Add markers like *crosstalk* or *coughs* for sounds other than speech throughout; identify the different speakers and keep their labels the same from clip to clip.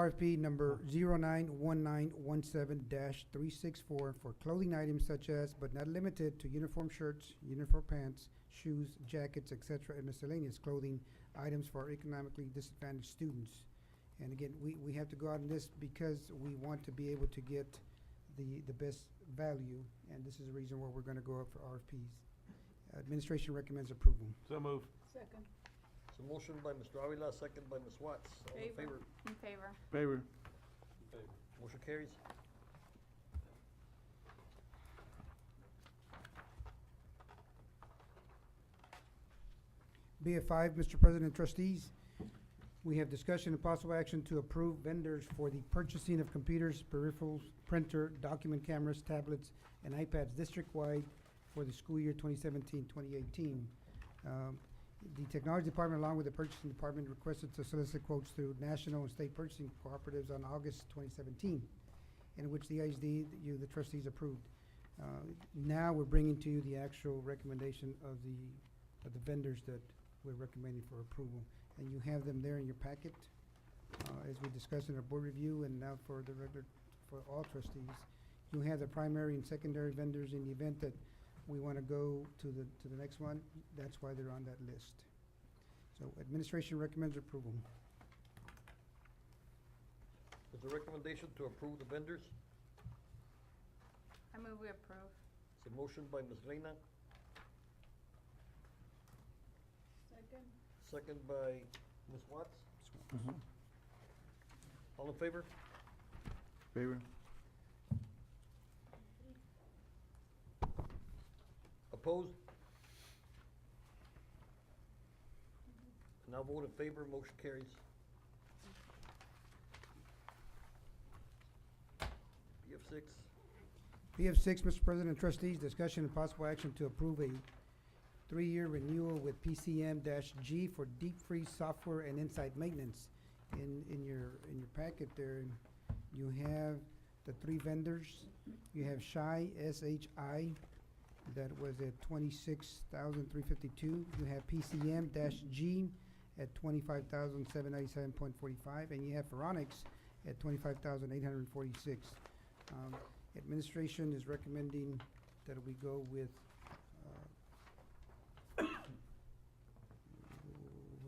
Speaker 1: RFP number zero nine one nine one seven three six four for clothing items such as, but not limited to uniform shirts, uniform pants, shoes, jackets, et cetera, and miscellaneous clothing items for economically disadvantaged students. And again, we, we have to go out on this because we want to be able to get the, the best value, and this is the reason why we're gonna go out for RFPs. Administration recommends approval.
Speaker 2: So move.
Speaker 3: Second.
Speaker 4: So motion by Mr. Avila, second by Ms. Watts. All in
Speaker 3: Favor.
Speaker 4: favor?
Speaker 3: In favor.
Speaker 2: Favor.
Speaker 4: Motion carries.
Speaker 1: BF5, Mr. President and trustees, we have discussion and possible action to approve vendors for the purchasing of computers, peripherals, printer, document cameras, tablets, and iPads district-wide for the school year 2017-2018. Um, The Technology Department, along with the Purchasing Department, requested to solicit quotes through national and state purchasing cooperatives on August 2017, in which the ISD, you, the trustees approved. Uh, Now, we're bringing to you the actual recommendation of the, of the vendors that we're recommending for approval. And you have them there in your packet, uh, as we discussed in our board review and now for the regular, for all trustees. You have the primary and secondary vendors in the event that we want to go to the, to the next one. That's why they're on that list. So administration recommends approval.
Speaker 4: Is there recommendation to approve the vendors?
Speaker 3: I move we approve.
Speaker 4: It's a motion by Ms. Reyna,
Speaker 3: Second.
Speaker 4: second by Ms. Watts.
Speaker 1: Mm-hmm.
Speaker 4: All in favor?
Speaker 2: Favor.
Speaker 4: Opposed? Now vote in favor, motion carries. BF six,
Speaker 1: PF six, Mr. President and trustees, discussion and possible action to approve a three-year renewal with PCM G for deep freeze software and inside maintenance. In, in your, in your packet there, you have the three vendors. You have Shy, S-H-I, that was at twenty-six thousand three fifty-two. You have PCM G at twenty-five thousand seven ninety-seven point forty-five, and you have Veronix at twenty-five thousand eight hundred and forty-six. Um, Administration is recommending that we go with, uh, *coughs* where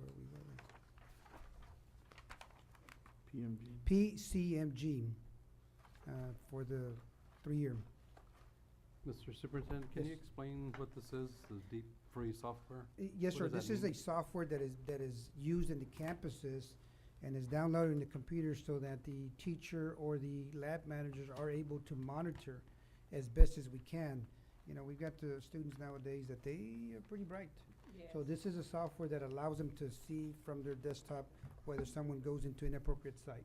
Speaker 1: are we going?
Speaker 2: PMG.
Speaker 1: PCMG, uh, for the three-year.
Speaker 5: Mr. Superintendent, can you
Speaker 1: Yes.
Speaker 5: explain what this is, the deep free software?
Speaker 1: Y- Eh, Yes,
Speaker 5: What
Speaker 1: sir,
Speaker 5: does that
Speaker 1: this is
Speaker 5: mean?
Speaker 1: a software that is, that is used in the campuses and is downloaded in the computer so that the teacher or the lab managers are able to monitor as best as we can. You know, we've got the students nowadays that they are pretty bright. So this is a software that allows them to see from their desktop whether someone goes into an appropriate site.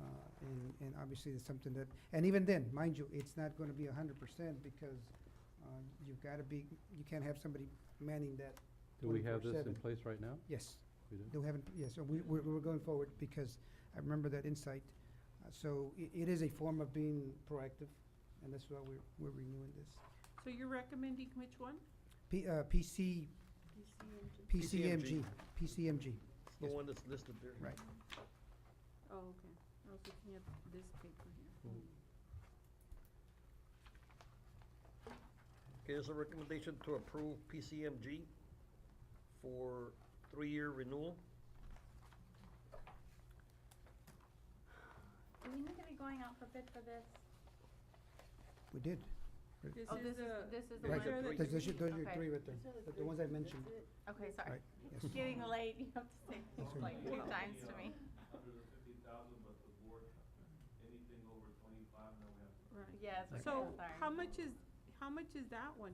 Speaker 1: Uh, and, and obviously it's something that, and even then, mind you, it's not gonna be a hundred percent because, uh, you've gotta be, you can't have somebody manning that,
Speaker 5: Do we have this in
Speaker 1: 24/7.
Speaker 5: place right now?
Speaker 1: yes.
Speaker 5: We do?
Speaker 1: No, we haven't, yes, so we, we're, we're going forward because I remember that insight. Uh, So i- it is a form of being proactive and that's why we're, we're renewing this.
Speaker 6: So you're recommending which one?
Speaker 1: P, uh, PC, PCMG, PCMG,
Speaker 4: it's the
Speaker 1: Yes.
Speaker 4: one that's listed there.
Speaker 1: right.
Speaker 6: Oh, okay. I was looking at this paper here.
Speaker 1: Hmm.
Speaker 4: Okay, there's a recommendation to approve PCMG for three-year renewal.
Speaker 3: Do we need to be going out for bid for this?
Speaker 1: We did.
Speaker 6: This
Speaker 3: Oh, this is,
Speaker 6: is the,
Speaker 3: this is the
Speaker 4: These
Speaker 3: one.
Speaker 4: are
Speaker 1: Those,
Speaker 4: three.
Speaker 1: those are those are your
Speaker 3: Okay.
Speaker 1: three right there, the- the ones I mentioned,
Speaker 3: Okay, sorry.
Speaker 1: Right, yes.
Speaker 3: It's Getting late, you have to say things
Speaker 1: That's right.
Speaker 3: like two times to me.
Speaker 6: right.
Speaker 3: Yes, okay,
Speaker 6: So
Speaker 3: sorry.
Speaker 6: how much is, how much is that one?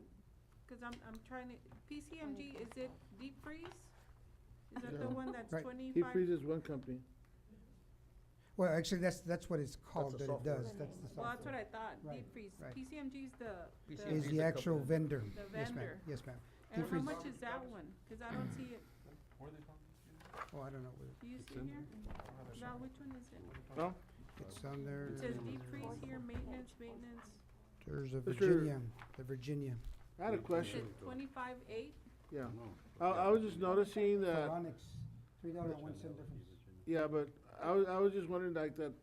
Speaker 6: Cause I'm, I'm trying to, PCMG, is it deep freeze? Is that the
Speaker 2: No.
Speaker 6: one that's
Speaker 1: Right.
Speaker 2: Deep
Speaker 6: twenty-five?
Speaker 2: freeze is one company.
Speaker 1: Well, actually, that's, that's what it's called,
Speaker 4: a
Speaker 1: that it
Speaker 4: software.
Speaker 1: does, that's the
Speaker 6: Well, that's
Speaker 1: software.
Speaker 6: what I thought,
Speaker 1: Right,
Speaker 6: deep freeze.
Speaker 1: right.
Speaker 6: PCMG is the,
Speaker 4: PCMG
Speaker 1: Is
Speaker 4: It's
Speaker 6: the,
Speaker 1: the
Speaker 4: a
Speaker 1: actual
Speaker 4: company.
Speaker 1: vendor.
Speaker 6: The
Speaker 1: Yes, ma'am,
Speaker 6: vendor.
Speaker 1: yes, ma'am.
Speaker 6: and how
Speaker 1: freeze.
Speaker 6: much is that one? Cause I don't see it.
Speaker 1: Oh, I don't know, where-
Speaker 6: Do you
Speaker 5: It's
Speaker 6: see
Speaker 5: in
Speaker 6: here? Val, which one is it?
Speaker 2: No?
Speaker 1: it's on there,
Speaker 6: It says deep freeze here, maintenance, maintenance.
Speaker 1: there's a
Speaker 2: Mr.
Speaker 1: Virginia, the Virginia.
Speaker 2: I had a
Speaker 6: Is
Speaker 2: question,
Speaker 6: it twenty-five eight?
Speaker 2: yeah.
Speaker 5: No.
Speaker 2: I, I was just noticing that,
Speaker 1: Pharonics, three dollar one cent difference.
Speaker 2: yeah, but I was, I was just wondering like that